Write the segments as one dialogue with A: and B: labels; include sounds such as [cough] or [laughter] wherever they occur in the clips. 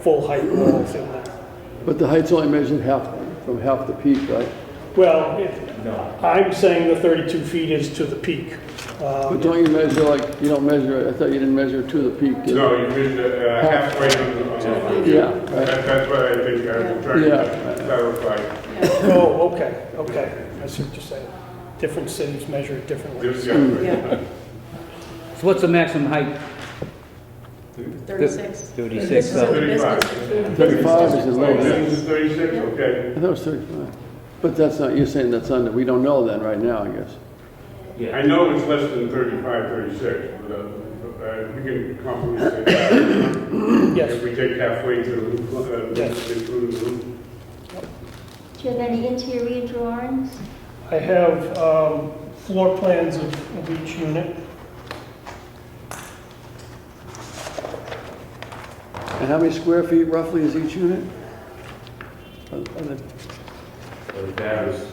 A: full height walls in there.
B: But the height's only measured half, from half the peak, right?
A: Well, it- I'm saying the 32 feet is to the peak. Uh,
B: But don't you measure like, you don't measure, it- I thought you didn't measure it to the peak, did you?
C: No, you mean uh, halfway on the, on the,
B: Yeah, right.
C: that, that's what I think I was trying
B: Yeah.
C: to clarify.
A: Oh, okay, okay, I see what you're saying. Different cities measure it differently.
C: This guy, [laughs]
D: So what's the maximum height?
E: 36.
D: 36,
E: This is
D: so-
E: in the business.
B: Thirty-five is the
C: oh,
B: lowest.
C: this is thirty-six, okay.
B: I thought it was thirty-five. But that's not, you're saying that's under, we don't know then, right now, I guess.
C: I know it's less than 35, 36, but, uh, uh, we can compensate that.
B: [coughs]
C: If
A: Yes,
C: we take halfway to, uh,
A: Yes.
C: include the roof.
F: Do you have any interior drawings?
A: I have um, floor plans of of each unit.
B: And how many square feet roughly is each unit? Are- are they-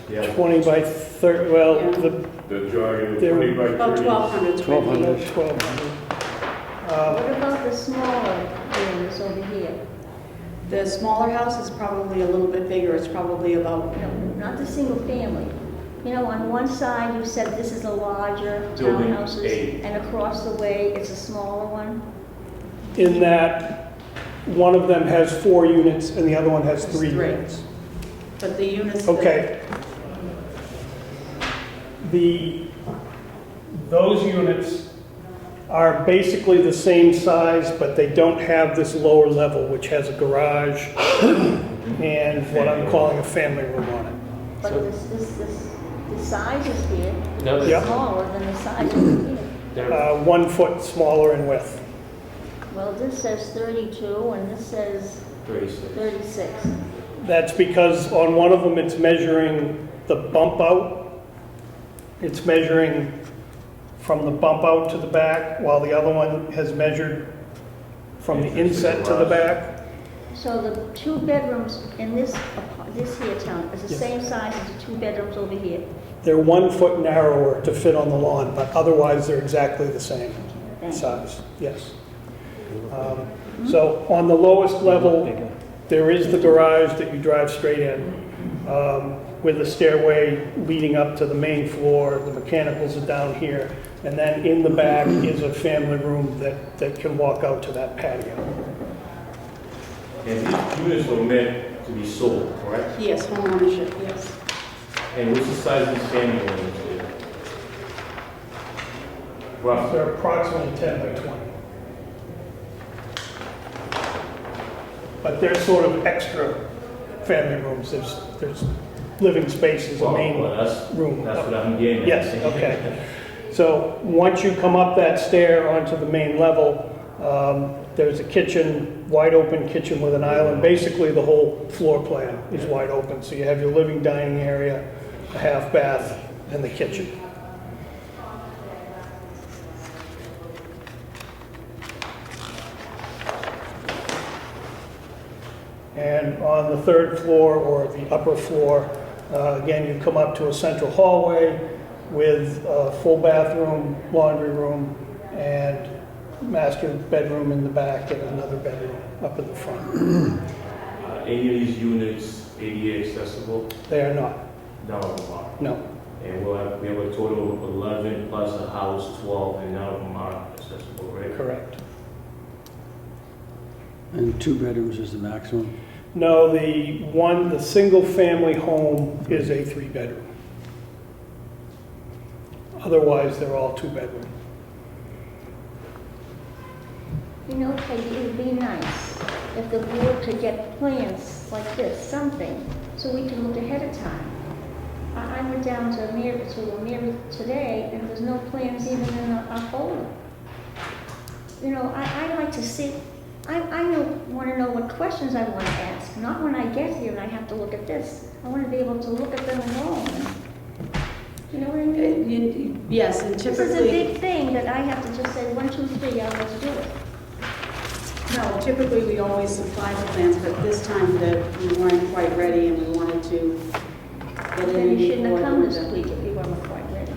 G: yeah.
A: 20 by 30, well, the
C: the jogging,
A: There-
C: twenty by
E: About
C: thirty.
E: 1,200 square feet.
B: 1,200.
A: 1200.
G: Uh,
A: Uh,
F: What about the smaller areas over here?
E: The smaller house is probably a little bit bigger, it's probably about,
F: No, Not the single family. You know, on one side, you said this is a larger
G: Building
F: townhouses,
G: eight.
F: and across the way, it's a smaller one.
A: In that, one of them has four units and the other one has three
E: Three.
A: units.
E: but the units. that-
A: Okay. The, those units are basically the same size, but they don't have this lower level, which has a garage and what I'm calling a family room on it.
F: But this, this, this, the size is here,
G: No,
F: it's
A: Yeah.
F: smaller than the size over here.
G: they're-
A: Uh, One foot smaller in width.
F: Well, this says 32, and this says
G: they're-
F: 36.
A: That's because on one of them, it's measuring the bump out. It's measuring from the bump out to the back, while the other one has measured from the inset to the back.
F: So the two bedrooms in this, apa- this here town is the
A: Yes.
F: same size as the two bedrooms over here.
A: They're one foot narrower to fit on the lawn, but otherwise they're exactly the same
F: Thank you.
A: size, yes. Um, So on the lowest level, there is the garage that you drive straight in um, with a stairway leading up to the main floor, the mechanicals are down here. And then in the back is a family room that, that can walk out to that patio.
G: And these units were meant to be sold, correct?
E: Yes, homeownership, yes.
G: And what's the size of these family rooms there? Roughly,
A: They're approximately 10 by 20. But they're sort of extra family rooms, there's, there's living spaces, a
G: well,
A: main
G: well, that's,
A: room.
G: that's what I'm getting at.
A: Yes, okay. So, once you come up that stair onto the main level, um, there's a kitchen, wide open kitchen with an island, basically the whole floor plan is wide open. So you have your living dining area, a half bath, and the kitchen. And on the third floor or the upper floor, uh, again, you come up to a central hallway with a full bathroom, laundry room, and master bedroom in the back and another bedroom up in the front.
G: [laughs] Uh, Any of these units ADA accessible?
A: They are not,
G: None of them are.
A: no.
G: And we'll have, we have a total of 11 plus a house, 12, and none of them are accessible, right?
A: Correct.
B: And two bedrooms is the maximum?
A: No, the one, the single-family home is a three-bedroom. Otherwise, they're all two-bedroom.
F: You know, Peggy, it would be nice if the board could get plans like this, something, so we can look ahead of time. I, I went down to Mary, to a Mary today, and there's no plans even in our our folder. You know, I, I like to see, I, I know- wanna know what questions I wanna ask, not when I get here and I have to look at this. I wanna be able to look at them alone. You know what I
E: Uh,
F: mean?
E: you- Yes, and
F: This is a
E: typically,
F: big thing that I have to just say, one, two, three, I'll just do it.
E: no, typically we always supply the plans, but this time that we weren't quite ready and we wanted to get it in.
F: Then you shouldn't have
E: before
F: come
E: the-
F: this week if you weren't quite ready.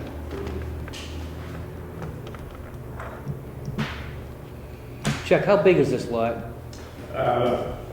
D: Chuck, how big is this lot?
C: uh,